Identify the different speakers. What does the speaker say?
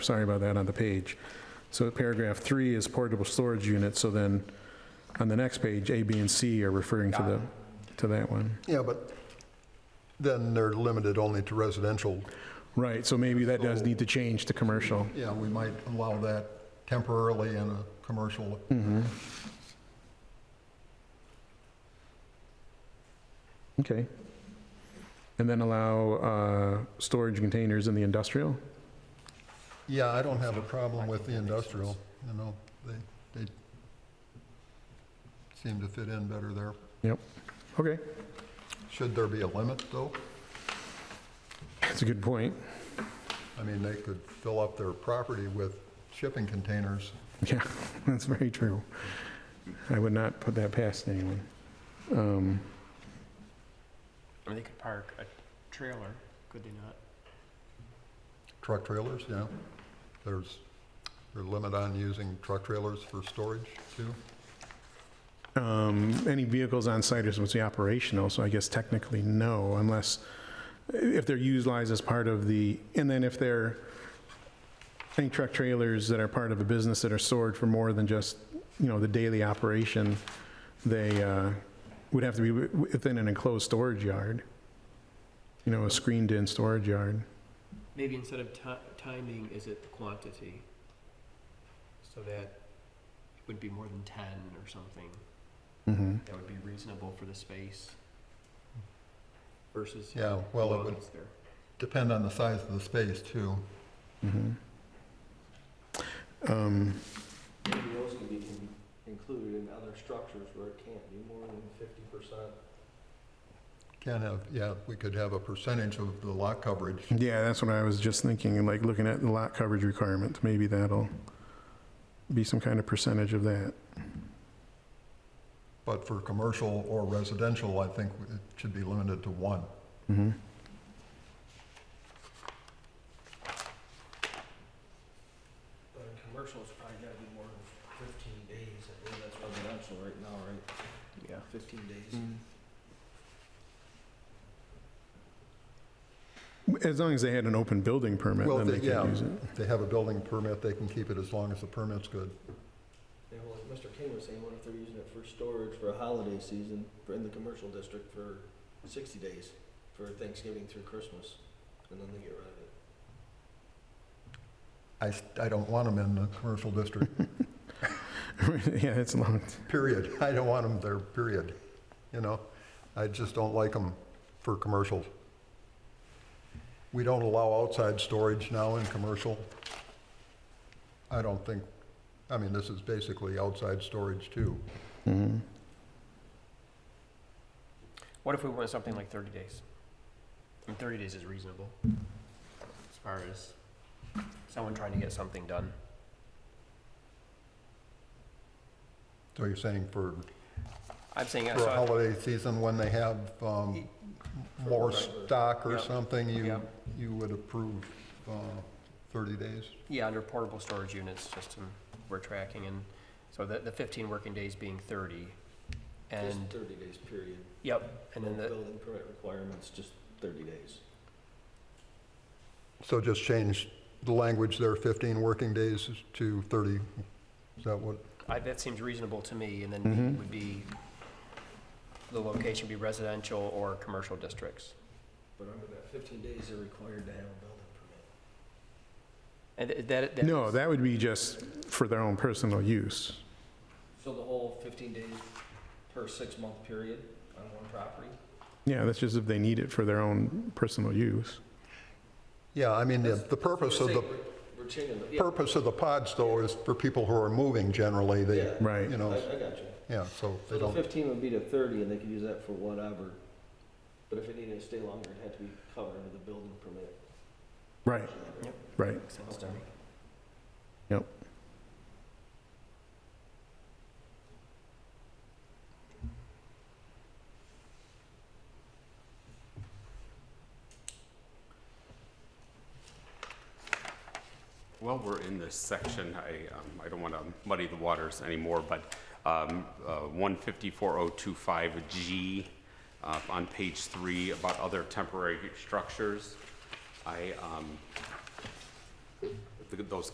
Speaker 1: sorry about that, on the page. So paragraph three is portable storage unit, so then on the next page, A, B, and C are referring to the, to that one.
Speaker 2: Yeah, but then they're limited only to residential.
Speaker 1: Right, so maybe that does need to change to commercial.
Speaker 2: Yeah, we might allow that temporarily in a commercial.
Speaker 1: Okay. And then allow uh, storage containers in the industrial?
Speaker 2: Yeah, I don't have a problem with the industrial, you know, they, they seem to fit in better there.
Speaker 1: Yep. Okay,
Speaker 2: Should there be a limit, though?
Speaker 1: that's a good point.
Speaker 2: I mean, they could fill up their property with shipping containers.
Speaker 1: Yeah, that's very true. I would not put that past anyone. Um,
Speaker 3: Or they could park a trailer, could they not?
Speaker 2: Truck trailers, yeah. There's, there's a limit on using truck trailers for storage, too.
Speaker 1: um, Any vehicles on site is supposed to be operational, so I guess technically no, unless, if they're utilized as part of the, and then if they're, any truck trailers that are part of a business that are stored for more than just, you know, the daily operation, they uh, would have to be wi- within an enclosed storage yard, you know, a screened-in storage yard.
Speaker 3: Maybe instead of ti- timing, is it the quantity? So that it would be more than ten or something,
Speaker 1: Mm-hmm.
Speaker 3: that would be reasonable for the space versus.
Speaker 2: Yeah, well,
Speaker 3: how
Speaker 2: it would
Speaker 3: it's there.
Speaker 2: depend on the size of the space, too.
Speaker 1: Mhm. Um,
Speaker 4: Maybe those can be con- included in other structures where it can't be more than fifty percent.
Speaker 2: Can have, yeah, we could have a percentage of the lot coverage.
Speaker 1: Yeah, that's what I was just thinking, and like looking at the lot coverage requirement, maybe that'll be some kind of percentage of that.
Speaker 2: But for commercial or residential, I think it should be limited to one.
Speaker 1: Mhm.
Speaker 4: But in commercial, it's probably gotta be more than fifteen days, I believe that's residential right now, right?
Speaker 3: Yeah.
Speaker 4: Fifteen days.
Speaker 3: Mm.
Speaker 1: As long as they had an open building permit,
Speaker 2: Well,
Speaker 1: then
Speaker 2: they-
Speaker 1: they
Speaker 2: yeah.
Speaker 1: could use it.
Speaker 2: If they have a building permit, they can keep it as long as the permit's good.
Speaker 4: Yeah, well, like Mr. King was saying, what if they're using it for storage for a holiday season, for in the commercial district for sixty days, for Thanksgiving through Christmas, and then they get rid of it?
Speaker 2: I, s- I don't want them in the commercial district,
Speaker 1: Yeah, it's long,
Speaker 2: period. I don't want them there, period. You know, I just don't like them for commercial. We don't allow outside storage now in commercial. I don't think, I mean, this is basically outside storage too.
Speaker 1: Mhm.
Speaker 3: What if we want something like thirty days? I mean, thirty days is reasonable, as far as someone trying to get something done.
Speaker 2: So you're saying for
Speaker 3: I'm saying, I
Speaker 2: for a
Speaker 3: saw,
Speaker 2: holiday season when they have um, more
Speaker 4: whatever.
Speaker 2: stock or
Speaker 3: Yeah.
Speaker 2: something,
Speaker 3: Yeah.
Speaker 2: you, you would approve uh, 30 days?
Speaker 3: yeah, under portable storage units, just um, we're tracking, and so the, the fifteen working days being thirty.
Speaker 4: Just
Speaker 3: And,
Speaker 4: thirty days period.
Speaker 3: yep, and then
Speaker 4: No
Speaker 3: the,
Speaker 4: Building permit requirements, just thirty days.
Speaker 2: So just change the language there, 15 working days to 30. Is that what,
Speaker 3: I, that seems reasonable to me, and then
Speaker 1: Mhm.
Speaker 3: B would be, the location be residential or commercial districts.
Speaker 4: But under that fifteen days, they're required to have a building permit.
Speaker 3: And th- that, that.
Speaker 1: No, that would be just for their own personal use.
Speaker 4: So the whole fifteen days per six-month period on one property?
Speaker 1: Yeah, that's just if they need it for their own personal use.
Speaker 2: yeah, I mean, the the purpose of the,
Speaker 4: We're changing the, yeah,
Speaker 2: purpose of the pods though is for people who are moving generally, they,
Speaker 4: Yeah.
Speaker 1: Right.
Speaker 2: you
Speaker 4: I,
Speaker 2: know,
Speaker 4: I got you.
Speaker 2: yeah, so
Speaker 4: So
Speaker 2: they
Speaker 4: the
Speaker 2: don't,
Speaker 4: fifteen would be to thirty, and they could use that for whatever. But if it needed to stay longer, it had to be covered under the building permit.
Speaker 1: Right, right.
Speaker 3: Makes sense to me.
Speaker 5: While we're in this section, I, um, I don't want to muddy the waters anymore, but, um, uh, 154.025G, uh, on page three about other temporary structures. I, um, the- those